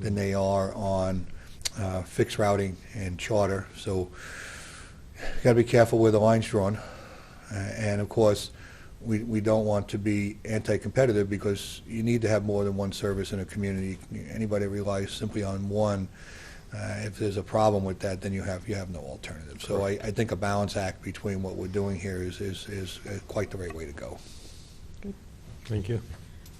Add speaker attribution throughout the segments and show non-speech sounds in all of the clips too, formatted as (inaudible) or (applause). Speaker 1: than they are on uh, fixed routing and charter. So you got to be careful where the line's drawn. Uh, And of course, we, we don't want to be anti-competitive because you need to have more than one service in a community. Anybody that relies simply on one, uh, if there's a problem with that, then you have, you have no alternative. So I, I think a balance act between what we're doing here is, is, is uh, quite the right way to go.
Speaker 2: Thank you.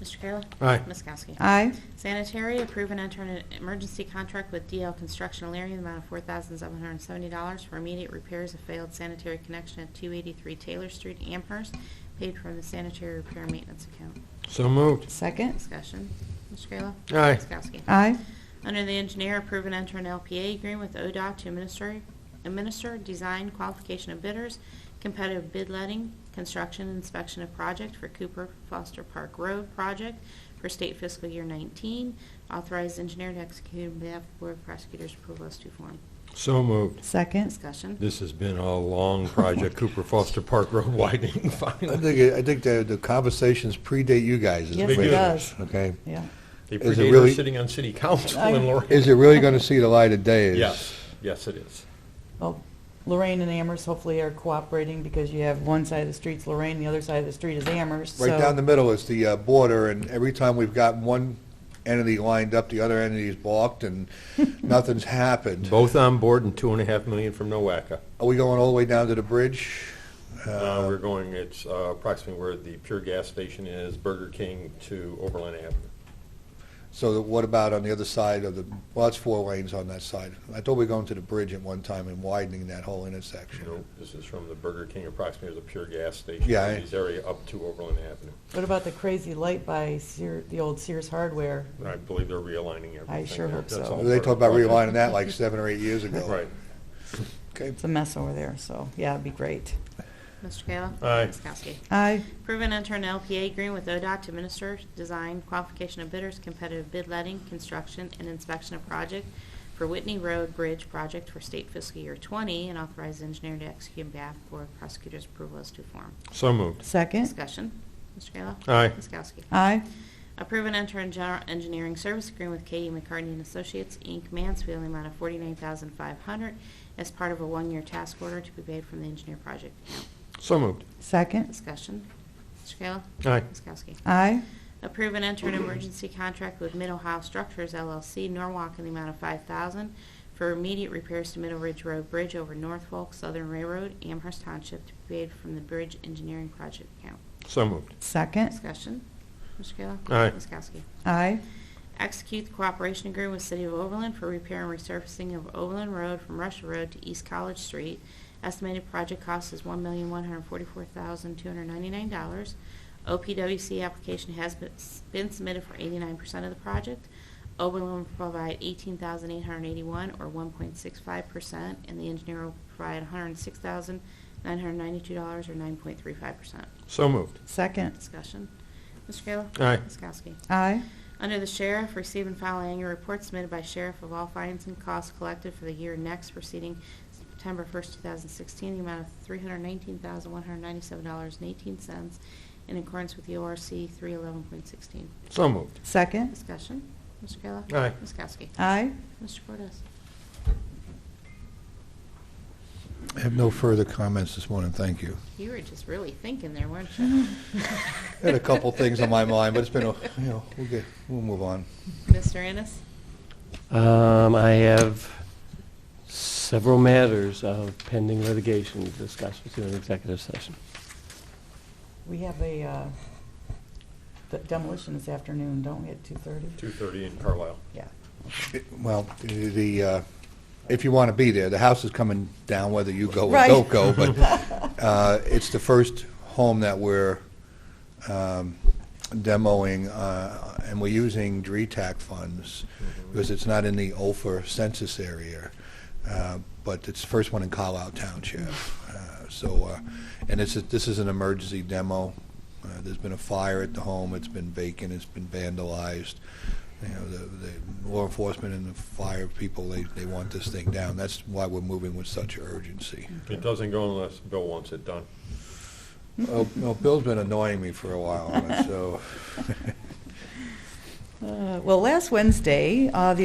Speaker 3: Mr. Kayla?
Speaker 2: Aye.
Speaker 3: Ms. Kowski?
Speaker 4: Aye.
Speaker 3: Sanitary, approve and enter an emergency contract with DL Construction Alaria in the amount of $4,770 for immediate repairs of failed sanitary connection at 283 Taylor Street, Amherst, paid from the sanitary repair maintenance account.
Speaker 2: So moved.
Speaker 4: Second.
Speaker 3: Discussion. Mr. Kayla?
Speaker 2: Aye.
Speaker 3: Ms. Kowski?
Speaker 4: Aye.
Speaker 3: Under the engineer, approve and enter an LPA agreement with ODOT to administer, administer design qualification of bidders, competitive bid letting, construction inspection of project for Cooper Foster Park Road project for state fiscal year 19. Authorized engineer to execute on behalf of the Board of Prosecutors' approval as to form.
Speaker 2: So moved.
Speaker 4: Second.
Speaker 3: Discussion.
Speaker 2: This has been a long project, Cooper Foster Park Road widening (laughs)
Speaker 1: I
Speaker 2: finally.
Speaker 1: think, I think the, the conversations predate you guys. is
Speaker 4: Yes,
Speaker 1: the
Speaker 2: it
Speaker 1: way
Speaker 4: does.
Speaker 1: Okay.
Speaker 4: Yeah.
Speaker 2: They
Speaker 1: Is it
Speaker 2: predate
Speaker 1: really-
Speaker 2: us sitting on city council
Speaker 4: I-
Speaker 2: in Lorraine.
Speaker 1: Is it really going to see the light of day? is-
Speaker 2: Yes, yes, it is.
Speaker 4: Well, Lorraine and Amherst hopefully are cooperating because you have one side of the street's Lorraine, the other side of the street is Amherst.
Speaker 1: Right
Speaker 4: so-
Speaker 1: down the middle is the uh, border, and every time we've got one entity lined up, the other entity's balked, and nothing's happened.
Speaker 2: Both on board and two and a half million from NOACA.
Speaker 1: Are we going all the way down to the bridge?
Speaker 2: Uh, We're going, it's uh, approximately where the Pure Gas Station is, Burger King to Overland Avenue.
Speaker 1: So that- what about on the other side of the, well, it's four lanes on that side. I thought we were going to the bridge at one time and widening that whole
Speaker 2: You know,
Speaker 1: intersection.
Speaker 2: this is from the Burger King approximately to the Pure Gas Station.
Speaker 1: Yeah, I-
Speaker 2: This area up to Overland Avenue.
Speaker 4: What about the crazy light by Sear, the old Sears Hardware?
Speaker 2: I believe they're realigning everything.
Speaker 4: I sure hope
Speaker 2: That's
Speaker 4: so.
Speaker 2: all
Speaker 1: They
Speaker 2: part of
Speaker 1: talked
Speaker 2: the
Speaker 1: about
Speaker 2: project.
Speaker 1: relining that like seven or eight years ago.
Speaker 2: Right.
Speaker 1: Okay.
Speaker 4: It's a mess over there, so, yeah, it'd be great.
Speaker 3: Mr. Kayla?
Speaker 2: Aye.
Speaker 3: Ms. Kowski?
Speaker 4: Aye.
Speaker 3: Approve and enter an LPA agreement with ODOT to administer design qualification of bidders, competitive bid letting, construction, and inspection of project for Whitney Road Bridge project for state fiscal year 20, and authorize engineer to execute on behalf of Board of Prosecutors' approval as to form.
Speaker 2: So moved.
Speaker 4: Second.
Speaker 3: Discussion. Mr. Kayla?
Speaker 2: Aye.
Speaker 3: Ms. Kowski?
Speaker 4: Aye.
Speaker 3: Approve and enter in general engineering service agreement with K.E. McCartney and Associates, Inc., Mansfield, in the amount of 49500 as part of a one-year task order to be paid from the engineer project account.
Speaker 2: So moved.
Speaker 4: Second.
Speaker 3: Discussion. Mr. Kayla?
Speaker 2: Aye.
Speaker 3: Ms. Kowski?
Speaker 4: Aye.
Speaker 3: Approve and enter an emergency contract with Mid-Ohio Structures LLC, Norwalk, in the amount of $5,000 for immediate repairs to Middle Ridge Road Bridge over Norfolk Southern Railroad, Amherst Township, to be paid from the Bridge Engineering Project Account.
Speaker 2: So moved.
Speaker 4: Second.
Speaker 3: Discussion. Mr. Kayla?
Speaker 2: Aye.
Speaker 3: Ms. Kowski?
Speaker 4: Aye.
Speaker 3: Execute the cooperation agreement with City of Overland for repair and resurfacing of Overland Road from Rush Road to East College Street. Estimated project cost is $1,144,299. OPWC application has been- been submitted for 89% of the project. Overland will provide 18881 or 1.65%, and the engineer will provide $106,992 or 9.35%.
Speaker 2: So moved.
Speaker 4: Second.
Speaker 3: Discussion. Mr. Kayla?
Speaker 2: Aye.
Speaker 3: Ms. Kowski?
Speaker 4: Aye.
Speaker 3: Under the Sheriff, receive and file annual report submitted by Sheriff of all fines and costs collected for the year next preceding September 1st, 2016, the amount of $319,197.18 in accordance with the ORC 311.16.
Speaker 2: So moved.
Speaker 4: Second.
Speaker 3: Discussion. Mr. Kayla?
Speaker 2: Aye.
Speaker 3: Ms. Kowski?
Speaker 4: Aye.
Speaker 3: Mr. Cortez?
Speaker 1: I have no further comments this morning, thank you.
Speaker 3: You were just really thinking there, weren't
Speaker 1: (laughs)
Speaker 3: you?
Speaker 1: Had a couple things on my mind, but it's been, a you know, we'll get, we'll move on.
Speaker 3: Mr. Ennis?
Speaker 5: Um, I have several matters of pending litigation to discuss with you in executive session.
Speaker 4: We have a uh, d- demolition this afternoon, don't we, at 2:30?
Speaker 2: 2:30 in Carlisle.
Speaker 4: Yeah.
Speaker 1: Well, the- the, uh, if you want to be there, the house is coming down whether you go or
Speaker 4: Right.
Speaker 1: don't go, but uh, it's the first home that we're um, demoing, uh, and we're using E DRETAC funds, because it's not in the OFER census area, uh, but it's the first one in Carlisle Township. Uh, So, uh, and it's, a- this is an emergency demo. Uh, There's been a fire at the home, it's been vacant, it's been vandalized. You know, the the law enforcement and the fire people, they, they want this thing down. That's why we're moving with such urgency.
Speaker 2: It doesn't go unless Bill wants it done.
Speaker 1: Oh, no, Bill's been annoying me for a (laughs) while on it, so.
Speaker 4: Uh, Well, last Wednesday, uh, the